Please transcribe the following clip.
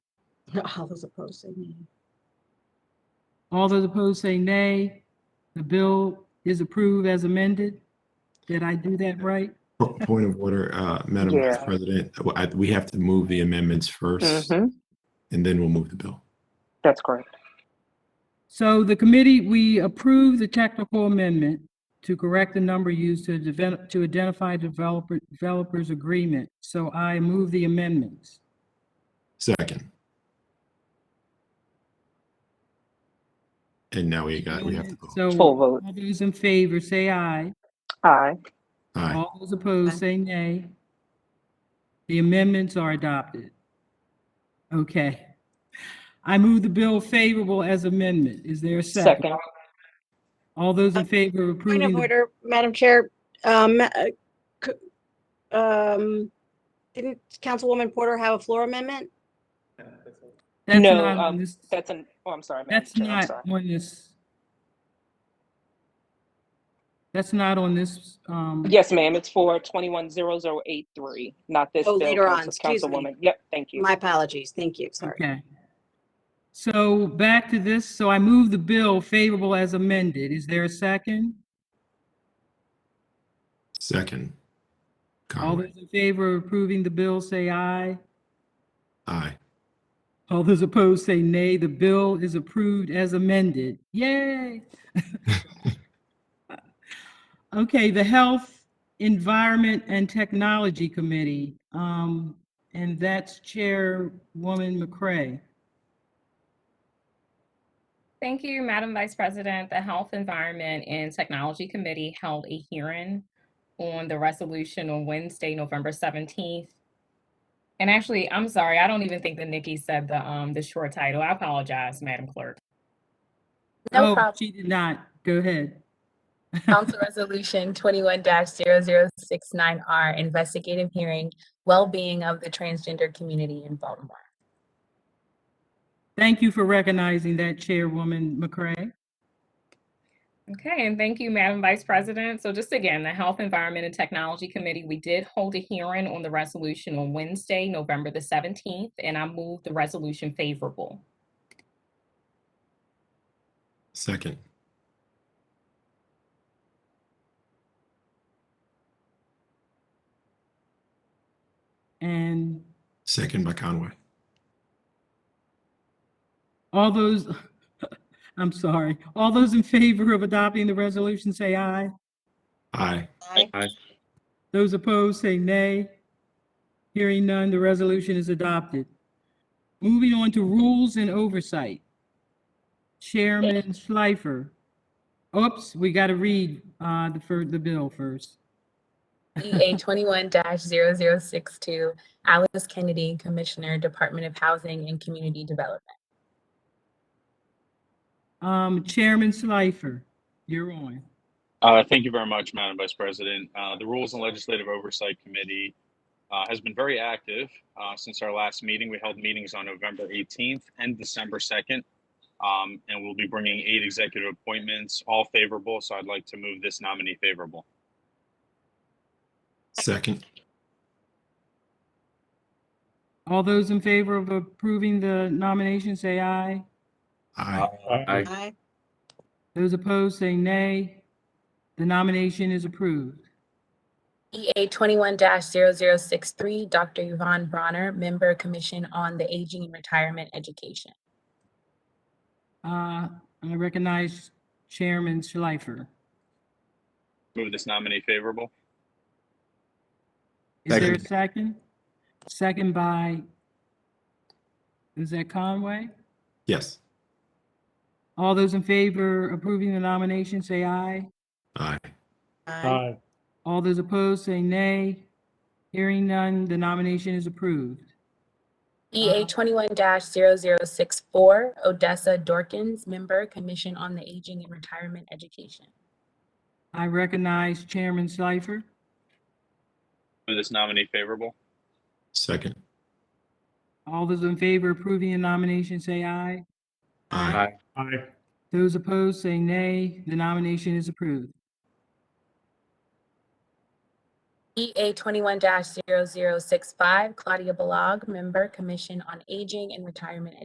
All those opposed say nay. All those opposed say nay. The bill is approved as amended. Did I do that right? Po- Point of order, uh, Madam Vice Yeah. President, w- I- we have to move the amendments first, Mm-hmm. Mhm. and then we'll move the bill. That's correct. So the committee, we approve the technical amendment to correct the number used to develop, to identify developer, developers agreement. So I move the amendments. Second. And now we got, we have to vote. So Full vote. all those in favor say aye. Aye. Aye. All those opposed say nay. The amendments are adopted. Okay. I move the bill favorable as amendment. Is there a second? Second. All those in favor of Point approving, of the- order, Madam Chair, um, uh, c- um, didn't Councilwoman Porter have a floor amendment? that's No, not on um, this, That's an, oh, I'm sorry. Madam that's Chair, I'm not sorry. on this. That's not on this, um, Yes, ma'am. It's for twenty-one zero zero eight three, not this Oh, bill. later on. Council- Excuse me. Councilwoman. Yep, thank you. My apologies. Thank you. Sorry. okay. So back to this, so I move the bill favorable as amended. Is there a second? Second. All Conway. those in favor of approving the bill, say aye. Aye. All those opposed say nay. The bill is approved as amended. Yay! Okay, the Health, Environment, and Technology Committee, um, and that's Chairwoman McCray. Thank you, Madam Vice President. The Health, Environment, and Technology Committee held a hearing on the resolution on Wednesday, November 17th. And actually, I'm sorry, I don't even think that Nikki said the, um, the short title. I apologize, Madam Clerk. No Oh, problem. She did not. Go ahead. Council Resolution 21-0069R, investigative hearing, well-being of the transgender community in Baltimore. Thank you for recognizing that, Chairwoman McCray. Okay, and thank you, Madam Vice President. So just again, the Health, Environment, and Technology Committee, we did hold a hearing on the resolution on Wednesday, November the 17th, and I moved the resolution favorable. Second. And Second by Conway. all those, I'm sorry, all those in favor of adopting the resolution, say aye. Aye. Those opposed say nay. Hearing none, the resolution is adopted. Moving on to rules and oversight. Chairman Schleifer. Oops, we got to read uh, the, fir- the bill first. EA 21-0062, Alice Kennedy, Commissioner, Department of Housing and Community Development. Um, Chairman Schleifer, you're on. Uh, Thank you very much, Madam Vice President. Uh, The Rules and Legislative Oversight Committee uh, has been very active uh, since our last meeting. We held meetings on November 18th and December 2nd. um, And we'll be bringing eight executive appointments, all favorable. So I'd like to move this nominee favorable. Second. All those in favor of approving the nomination, say aye. Uh, Aye. Aye. Those opposed, say nay. The nomination is approved. EA 21-0063, Dr. Yvonne Bronner, Member, Commission on the Aging and Retirement Education. Uh, I recognize Chairman Schleifer. Move this nominee favorable. Is there a second? Second by, is that Conway? Yes. All those in favor approving the nomination, say aye. Aye. Aye. All those opposed, say nay. Hearing none, the nomination is approved. Uh, EA 21-0064, Odessa Dorkins, Member, Commission on the Aging and Retirement Education. I recognize Chairman Schleifer. Move this nominee favorable. Second. All those in favor approving the nomination, say aye. Aye. Those opposed, say nay. The nomination is approved. EA 21-0065, Claudia Balog, Member, Commission on Aging and Retirement